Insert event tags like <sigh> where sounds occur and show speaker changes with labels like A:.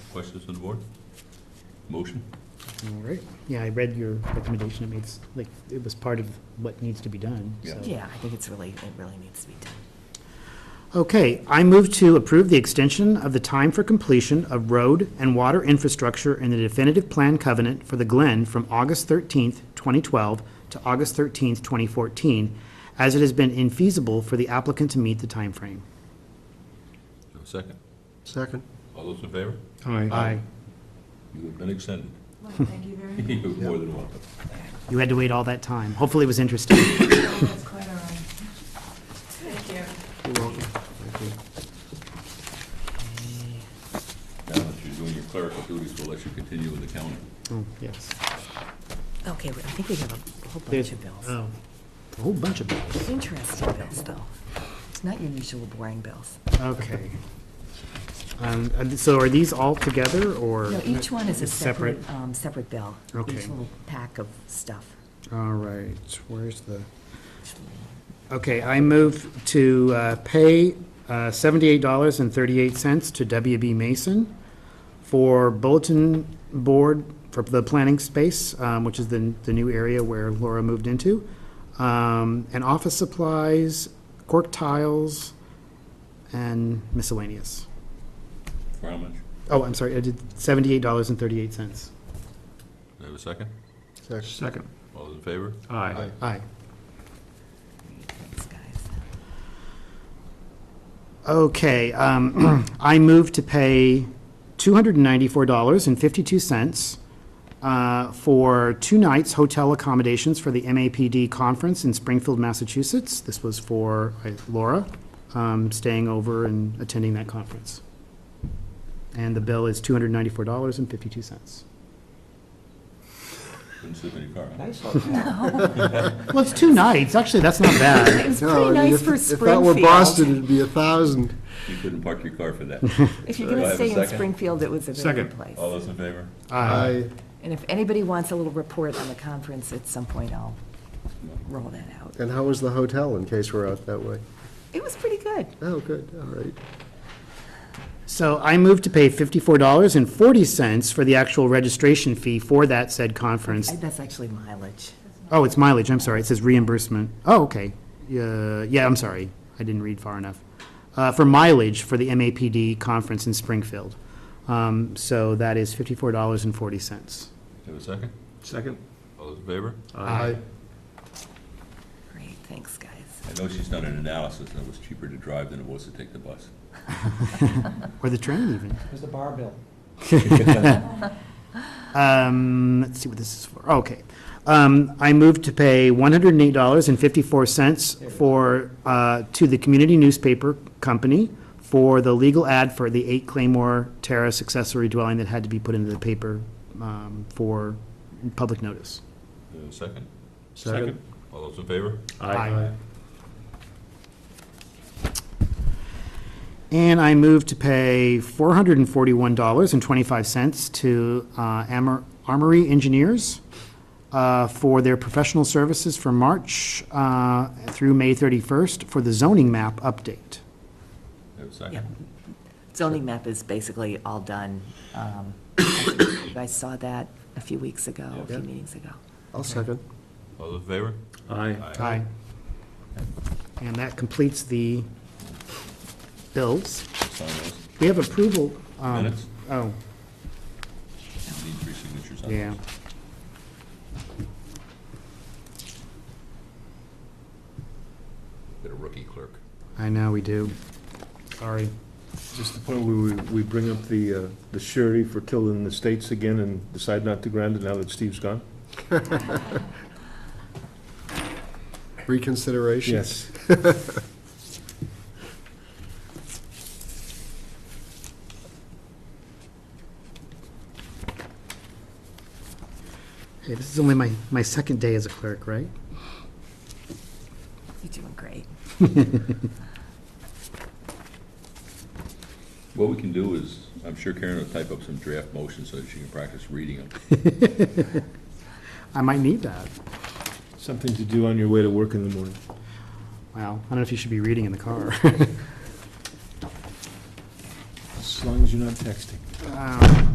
A: Questions on the board? Motion?
B: All right. Yeah, I read your recommendation. It makes, like, it was part of what needs to be done.
A: Yeah.
B: so-
C: Yeah, I think it's really, it really needs to be done.
B: Okay, I move to approve the extension of the time for completion of road and water infrastructure in the definitive plan covenant for the Glen from August 13th, 2012 to August 13th, 2014, as it has been infeasible for the applicant to meet the timeframe.
A: Do a second?
D: Second.
A: All those in favor?
B: Aye.
A: You have been extended. <laughs>
E: Well, thank you very much.
A: You're more than welcome.
B: You had to wait all that time. Hopefully it was
C: <coughs>
B: interesting.
E: That's quite all right. Thank you.
D: You're welcome. Thank you.
A: Now that you're doing your clerical duties, we'll let you continue with the county.
B: Oh, yes.
C: Okay, I think we have a whole bunch
B: There's-
C: of bills.
D: uh,
B: Oh, a whole bunch of bills.
C: Interesting bills, though. It's not your usual boring bills.
B: Okay. Um, and So are these all together, or?
C: No, each one is a separate,
B: Separate.
C: um, separate bill.
B: Okay.
C: Each little pack of stuff.
B: All right, where's the? Okay, I move to uh, pay uh, $78.38 to WB Mason for bulletin board, for the planning space, um, which is the, the new area where Laura moved into, um, and office supplies, cork tiles, and miscellaneous.
A: For how much?
B: Oh, I'm sorry, I did $78.38.
A: Do I have a second?
D: Second.
F: Second.
A: All those in favor?
F: Aye.
B: Aye.
C: Thanks, guys.
B: Okay, um, <clears throat> I move to pay $294.52 uh, for two nights hotel accommodations for the MAPD conference in Springfield, Massachusetts. This was for uh, Laura, um, staying over and attending that conference. And the bill is $294.52.
A: Couldn't sleep in your car, huh?
B: Well, it's two nights, actually, that's not bad.
C: It's
D: No, I
C: pretty
D: mean,
C: nice
D: if-
C: for
D: If that were
C: Springfield.
D: Boston, it'd be a thousand.
A: You couldn't park your car for that.
C: If you're
A: Do I
C: going to
A: have a
C: stay in
A: second?
C: Springfield, it was a very good
F: Second.
C: place.
A: All those in favor?
B: Aye.
C: And if anybody wants a little report on the conference at some point, I'll roll that out.
D: And how was the hotel, in case we're out that way?
C: It was pretty good.
D: Oh, good, all right.
B: So I move to pay $54.40 for the actual registration fee for that said conference.
C: I- That's actually mileage.
B: Oh, it's mileage, I'm sorry, it says reimbursement. Oh, okay. Yeah, yeah, I'm sorry, I didn't read far enough. Uh, for mileage for the MAPD conference in Springfield. Um, so that is fifty-four dollars and forty cents.
A: Do I have a second?
F: Second.
A: All those in favor?
B: Aye.
C: Great, thanks, guys.
A: I know she's done an analysis, and it was cheaper to drive than it was to take the bus.
B: Or the train even.
G: There's the bar bill.
B: Um, let's see what this is for, Oh, okay. Um, I move to pay one hundred and eight dollars and fifty-four cents for, uh, to the community newspaper company for the legal ad for the eight Claymore Terrace accessory dwelling that had to be put into the paper, um, for public notice.
A: Do I have a second?
D: Second.
A: All those in favor?
B: Aye. And I move to pay four hundred and forty-one dollars and twenty-five cents to uh, Amor- Armory Engineers uh, for their professional services for March uh, through May thirty-first for the zoning map
A: Do
B: update.
A: I have a second?
C: Yep. Zoning map is basically all done. Um, I think You guys saw that a few weeks ago, a few
D: Yeah.
C: meetings ago.
D: I'll second.
A: All those in favor?
F: Aye.
B: And that completes the bills.
A: Sign those.
B: We have approval. um,
A: Minutes?
B: Oh,
A: You Need three signatures on those.
B: yeah.
A: Get a rookie clerk.
B: I know, we do. Sorry.
H: Just the point where we, we bring up the, uh, the surety for tilling the states again and decide not to grant it now that Steve's gone?
D: Reconsideration?
B: Hey, this is only my, my second day as a clerk, right?
C: You're doing great.
A: What we can do is, I'm sure Karen will type up some draft motions so that she can practice reading them.
B: I might need that.
H: Something to do on your way to work in the morning.
B: Wow, I don't know if you should be <laughs> reading in the car.
H: As long as you're not texting.
B: um,